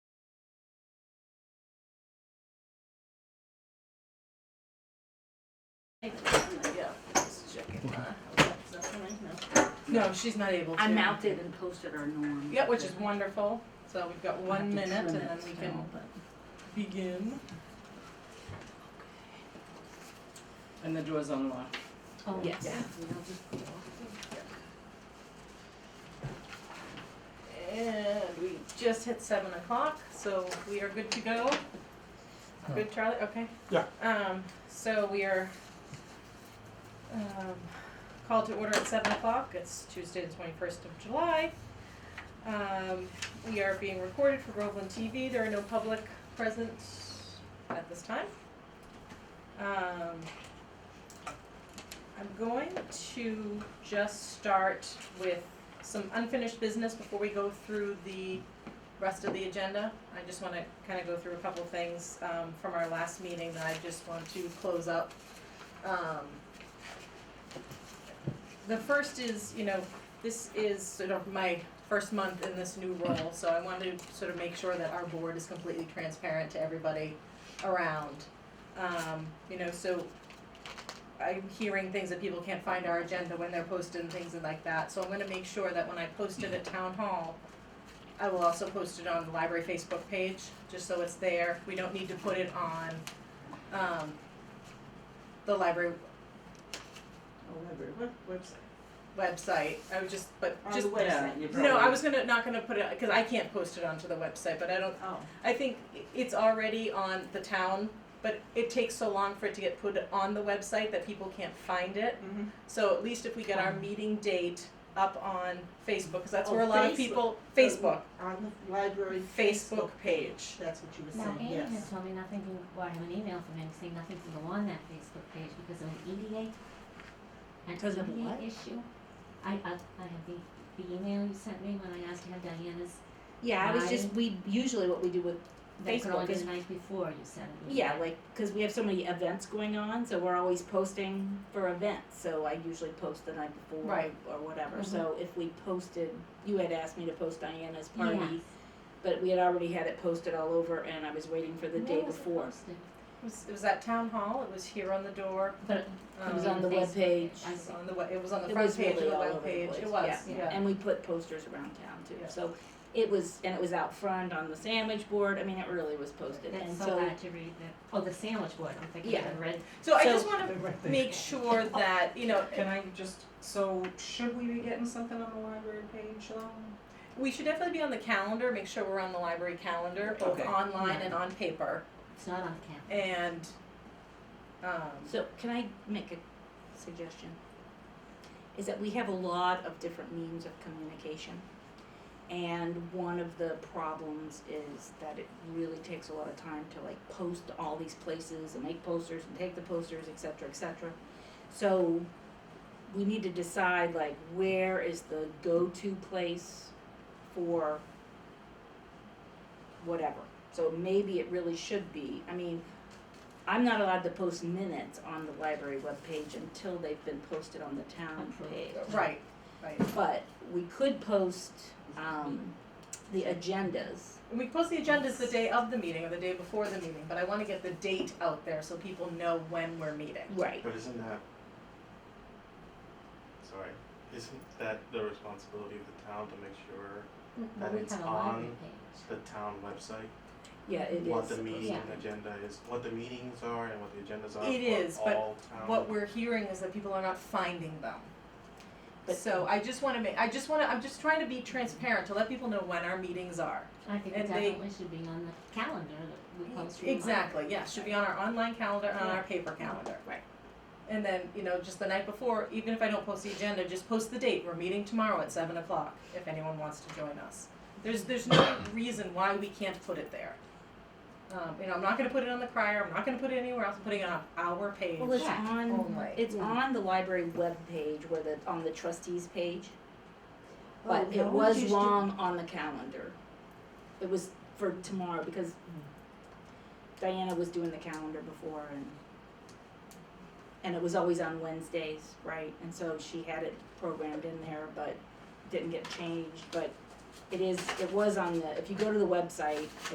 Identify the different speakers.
Speaker 1: Yeah, just checking. Is that coming? No.
Speaker 2: No, she's not able to.
Speaker 1: I mounted and posted our norm.
Speaker 2: Yeah, which is wonderful. So we've got
Speaker 1: I have
Speaker 2: one
Speaker 1: to
Speaker 2: minute and
Speaker 1: trim
Speaker 2: then
Speaker 1: it
Speaker 2: we
Speaker 1: still,
Speaker 2: can
Speaker 1: but-
Speaker 2: begin. And the door's unlocked.
Speaker 1: Oh,
Speaker 2: Yes.
Speaker 1: yeah.
Speaker 2: And we just hit seven o'clock, so we are good to go. Good, Charlie, okay?
Speaker 3: Yeah.
Speaker 2: Um, so we are, um, called to order at seven o'clock, it's Tuesday, the twenty-first of July. Um, we are being recorded for Groveland TV, there are no public present at this time. Um, I'm going to just start with some unfinished business before we go through the rest of the agenda. I just wanna kinda go through a couple things, um, from our last meeting that I just want to close up. Um, the first is, you know, this is sort of my first month in this new role, so I wanted to sort of make sure that our board is completely transparent to everybody around. Um, you know, so I'm hearing things that people can't find our agenda when they're posted and things and like that, so I'm gonna make sure that when I post it at town hall, I will also post it on the library Facebook page, just so it's there, we don't need to put it on, um, the library
Speaker 1: Oh, library, what website?
Speaker 2: website, I would just, but
Speaker 1: On
Speaker 2: just.
Speaker 1: the website, you
Speaker 2: No, I
Speaker 1: probably-
Speaker 2: was gonna, not gonna put it, cause I can't post it onto the website, but I don't,
Speaker 1: Oh,
Speaker 2: I think i- it's already on the town, but it takes so long for it to get put on the website that people can't find it.
Speaker 1: mm-hmm.
Speaker 2: So at least if we get our meeting date up on Facebook, because that's
Speaker 4: Oh,
Speaker 2: where a lot
Speaker 4: Facebook.
Speaker 2: of people,
Speaker 5: Uh,
Speaker 2: Facebook,
Speaker 4: On the library
Speaker 2: Facebook page.
Speaker 4: That's what you were
Speaker 6: Now,
Speaker 4: saying,
Speaker 6: Andy has
Speaker 4: yes.
Speaker 6: told me nothing can, well, I have an email from him saying nothing can go on that Facebook page because of E an EDA. An
Speaker 2: Because of
Speaker 6: EDA
Speaker 2: what?
Speaker 6: E issue. I, I, I have the, the email you sent me when I asked to have Diana's,
Speaker 5: Yeah, I was just
Speaker 6: I-
Speaker 5: we usually what we do with
Speaker 6: that could
Speaker 5: Facebook
Speaker 6: only be
Speaker 5: is
Speaker 6: the night before you sent it.
Speaker 5: yeah, like because we have so many events going on, so we're always posting for events. So I usually post the night before
Speaker 2: Right.
Speaker 5: or whatever. So
Speaker 1: Mm-hmm.
Speaker 5: if we posted, you had asked me to post Diana's party,
Speaker 6: Yes.
Speaker 5: but we had already had it posted all over, and I was waiting for the
Speaker 6: Where
Speaker 5: day
Speaker 6: was it
Speaker 5: before.
Speaker 6: posted?
Speaker 2: It was, it was at town hall, it was here on the door.
Speaker 6: But
Speaker 5: It was
Speaker 2: um,
Speaker 5: on the
Speaker 6: Oh, Facebook
Speaker 5: webpage.
Speaker 6: I
Speaker 2: It was
Speaker 6: see.
Speaker 2: on the, we- it was on the
Speaker 5: It
Speaker 2: front
Speaker 5: was
Speaker 2: page of
Speaker 5: really
Speaker 2: the
Speaker 5: all over
Speaker 2: web
Speaker 5: the
Speaker 2: page, it
Speaker 5: place,
Speaker 2: was,
Speaker 5: yeah.
Speaker 2: yeah.
Speaker 5: And we put posters around town too.
Speaker 2: Yeah.
Speaker 5: So it was, and it was out front on the sandwich board. I mean, it really was posted. and
Speaker 6: That's so bad to read that, oh, the sandwich board, I'm thinking
Speaker 5: Yeah.
Speaker 6: of red.
Speaker 2: So I
Speaker 5: So-
Speaker 2: just wanna make sure that, you know,
Speaker 3: Can I just, so should we be getting something on the library page though?
Speaker 2: we should definitely be on the calendar, make sure we're on the library calendar, both
Speaker 3: Okay.
Speaker 2: online and on paper.
Speaker 6: It's not on the calendar.
Speaker 2: And, um,
Speaker 5: So can I make a suggestion? Is that we have a lot of different means of communication. And one of the problems is that it really takes a lot of time to like post to all these places and make posters and take the posters, et cetera, et cetera. So we need to decide like where is the go-to place for whatever. So maybe it really should be, I mean, I'm not allowed to post minutes on the library webpage until they've been posted on the town
Speaker 6: Approved.
Speaker 5: page.
Speaker 2: right, right.
Speaker 5: But we could post, um, the agendas.
Speaker 2: And we post the agendas the day of the meeting or the day before the meeting, but I want to get the date out there so people know when we're meeting.
Speaker 5: Right.
Speaker 7: But isn't that, sorry, isn't that the responsibility of the town to make sure
Speaker 6: Well,
Speaker 7: And
Speaker 6: we
Speaker 7: it's
Speaker 6: have a library
Speaker 7: on-
Speaker 6: page.
Speaker 7: the town website,
Speaker 5: Yeah, it is.
Speaker 7: what the
Speaker 5: supposed-
Speaker 7: meeting
Speaker 6: Yeah.
Speaker 7: agenda is, what the meetings are and what the agendas are
Speaker 2: It is,
Speaker 7: for
Speaker 2: but
Speaker 7: all town?
Speaker 2: What we're hearing is that people are not finding them.
Speaker 5: But-
Speaker 2: So I just want to make, I just want to, I'm just trying to be transparent to let people know when our meetings are.
Speaker 6: I think
Speaker 2: And
Speaker 6: it
Speaker 2: they-
Speaker 6: definitely should be on the calendar
Speaker 5: E
Speaker 6: that we post. remind-
Speaker 2: Exactly, yeah, should be on our online calendar and on our paper calendar.
Speaker 5: Right.
Speaker 2: And then, you know, just the night before, even if I don't post the agenda, just post the date, we're meeting tomorrow at seven o'clock, if anyone wants to join us. There's, there's no reason why we can't put it there. Um, you know, I'm not gonna put it on the crier, I'm not gonna put it anywhere else, I'm putting it on our page
Speaker 5: Well, it's
Speaker 6: Yeah.
Speaker 5: on,
Speaker 2: only.
Speaker 5: it's on the library webpage where the, on the trustees page. But
Speaker 6: 哦
Speaker 4: Oh,
Speaker 5: it
Speaker 4: no,
Speaker 5: was
Speaker 4: you should-
Speaker 5: wrong on the calendar. It was for tomorrow because Diana was doing the calendar before and and it was always on Wednesdays, right? And so she had it programmed in there but didn't get changed, but it is, it was on the, if you go to the website,